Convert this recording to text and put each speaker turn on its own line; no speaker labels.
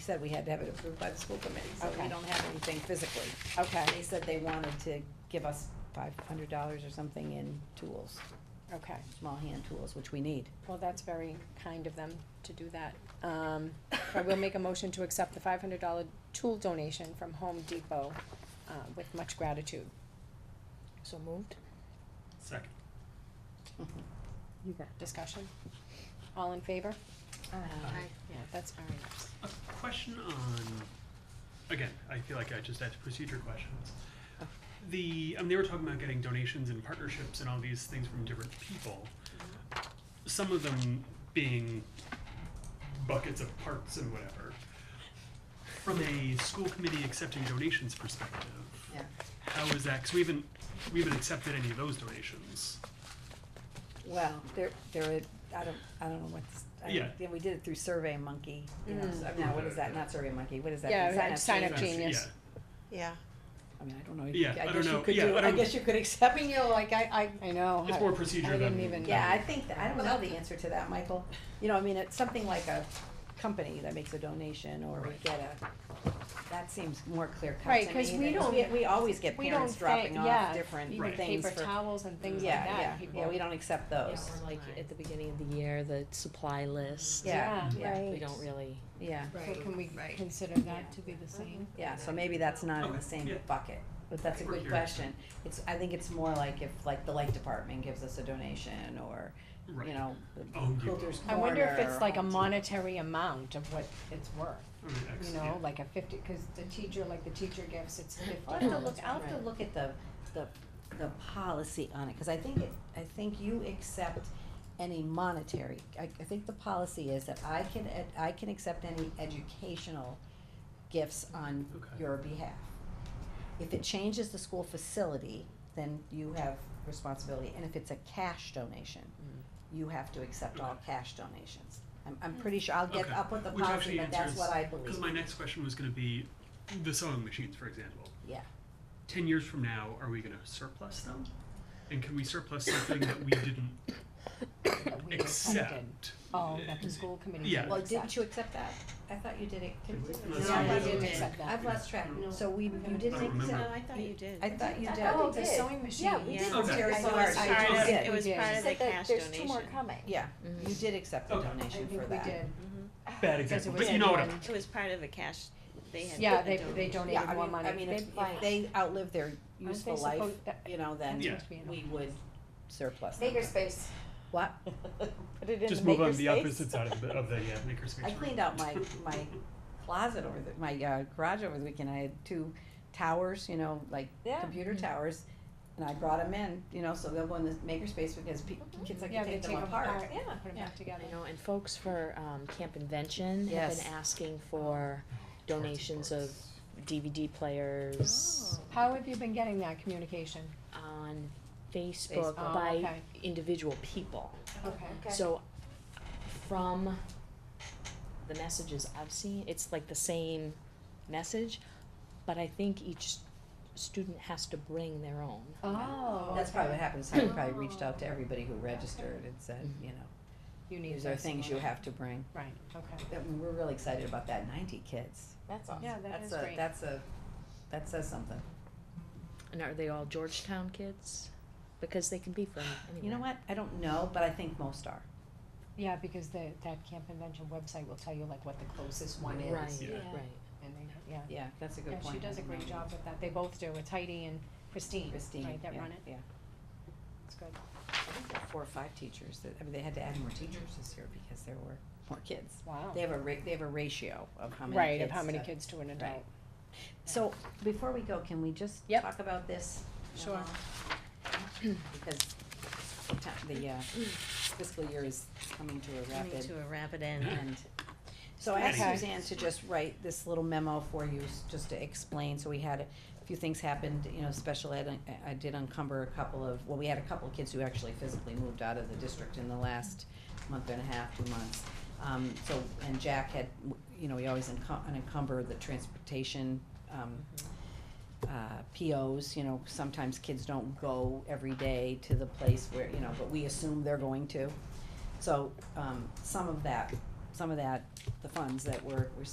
said we had to have it approved by the school committee, so we
Okay.
don't have anything physically.
Okay,
They said they wanted to give us five hundred dollars or something in tools,
okay.
small hand tools, which we need.
Well, that's very kind of them to do that. Um, I will make a motion to accept the five hundred dollar tool donation from Home Depot, uh, with much gratitude.
So moved?
Second.
Uh,
You got
Discussion? All in favor? Uh,
Aye.
Yeah, that's very nice.
A question on, again, I feel like I just asked procedure questions. The, um, they were talking about getting donations and partnerships and all these things from different people. Some of them being buckets of parts and whatever. From a school committee accepting donations perspective,
Yeah.
how is that, cause we haven't, we haven't accepted any of those donations.
Well, there, there, are- I don't, I don't know what's, I,
Yeah.
yeah, we did it through Survey Monkey, you know, so, now what is that, not Survey Monkey, what is that?
Mm. Yeah,
Sign
and
Up
Sign Up
Genius.
Genius.
Yeah.
I mean, I don't know, I
Yeah, I don't
guess you
know.
could
Yeah,
do,
I
I
don't-
guess you could accept, I mean, you know, like, I, I,
I know.
It's
I-
more procedure
I didn't
than-
even-
Yeah, I think, that- I don't know the answer to that, Michael. You know, I mean, it's something like a company that makes a donation or we
Right.
get a, that seems more clear cut to
Right,
me
'cause we
than-
don't-
We, we always get
We
parents
don't thank-
dropping
yeah,
off different
Right.
things
Paper
for-
towels and things like
Yeah,
that.
yeah,
people-
yeah, we don't accept those.
Or like at the beginning of the year, the supply list.
Yeah,
Yeah,
yeah,
right.
We don't really.
yeah,
So can we
Right.
consider that to be the same?
yeah, so maybe that's not in
Okay,
the same
yeah.
bucket, but that's a
We're
good
here.
question. It's, I think it's more like if, like, the light department gives us a donation or,
Right.
you know, the
Oh, you-
Quilters
I wonder if
Corner
it's like a
or-
monetary amount of what it's worth,
Okay,
you
excellent, yeah.
know, like a fifty, cause the teacher, like the teacher gifts, it's fifty.
I'll have to look, I'll have to look at the, the, the policy on it, cause I think it, I think you accept any monetary, I, I think the policy is that I can, ed- I can accept any educational gifts on
Okay.
your behalf. If it changes the school facility, then you have responsibility, and if it's a cash donation, you have to accept all
Okay.
cash donations. I'm, I'm pretty sure, I'll get
Okay.
up with the
Which
policy,
actually
but that's what I believe,
Because my next question was going to be the sewing machines, for example.
yeah.
10 years from now, are we going to surplus them? And can we surplus something that we didn't
We accepted.
accept?
Oh, that the school committee.
Yeah.
didn't
Well,
accept.
didn't you accept that? I thought you did it.
Did we?
No,
Yeah,
I
No,
we
we
didn't.
didn't
did.
accept that.
I've lost track, so we, you
I
didn't
don't remember.
accept,
No, oh, I thought you did.
I thought you did.
Oh,
You
the sewing machine.
Yeah, we did.
Yeah.
Okay.
Terry
I
saw
thought
it.
I
She did.
Sorry, did.
It was
We did.
part of the
said that
cash
there's
donation.
two more coming.
Yeah, Mm-hmm. you did accept the
Okay. I
I
donation
think
for
we
that.
did.
Mm-hmm.
Bad
Because it
example,
was
but you know what?
everyone-
I'm-
It was part of the cash, they had.
Yeah,
put
they,
the
they
donation.
Yeah,
donated
I
more
mean,
money.
I mean, if,
They-
if they outlive their useful life,
supposed- that-
you know, then
Yeah.
supposed to be an
we would surplus them.
Makerspace.
What?
Put it in
Just
the
move on
makerspace.
the opposite side of the, of the yeah, makerspace.
I
room.
cleaned out my, my closet over the, my uh, garage over the weekend, I had two towers, you know, like
Yeah.
computer
Mm-hmm.
towers. And I brought them in, you know, so they'll go in the makerspace because pe- kids like
Mm-hmm. Yeah,
to
they
take them
take 'em
apart.
apart.
Yeah.
Put it back together.
I know, and folks for, um, Camp Invention have
Yes.
been asking for donations of DVD players
How have you been getting that communication?
on Oh. Facebook
Oh,
by
okay.
individual people.
Okay.
Oh.
Okay.
So, from the messages I've seen, it's like the same message, but I think each student has to bring their own.
Oh.
That's probably what happened, so I probably reached out to everybody who registered and said,
Mm-hmm.
you know,
You need
these are
this.
things you have to bring.
Right, okay.
I mean, we're really excited about that ninety kids.
That's awesome.
Yeah, Oh, that
That's
is
a,
great.
that's a, that says something.
And are they all Georgetown kids? Because they can be from anywhere.
You know what, I don't know, but I think most are.
Yeah, because the, that camp convention website will tell you like what the closest one is.
Right,
Yeah.
right.
And they, yeah.
Yeah, that's a
Yeah,
good point.
she does a
I don't
great
know.
job with that. They both do. It's Heidi and Christine,
Christine,
right, that
yeah,
run it.
yeah.
It's good.
I think there were four or five teachers that, I mean, they had to add more teachers this year because there were more kids.
Wow.
They have a ra- they have a ratio of how many kids.
Right, of how many
to-
kids to an
Right.
adult.
So, before we go, can we just
Yep.
talk about this?
Sure.
Because the ti- the uh, fiscal year is coming to a
Coming
rapid
to a rapid end.
end. So I asked
Okay.
Suzanne to just write this little memo for you, s- just to explain, so we had a few things happened, you know, special ed, I- I did encumber a couple of, well, we had a couple of kids who actually physically moved out of the district in the last month and a half, two months. Um, so, and Jack had, you know, we always encum- encumber the transportation, um, uh, POs, you know, sometimes kids don't go every day to the place where, you know, but we assume they're going to. So, um, some of that, some of that, the funds that were, were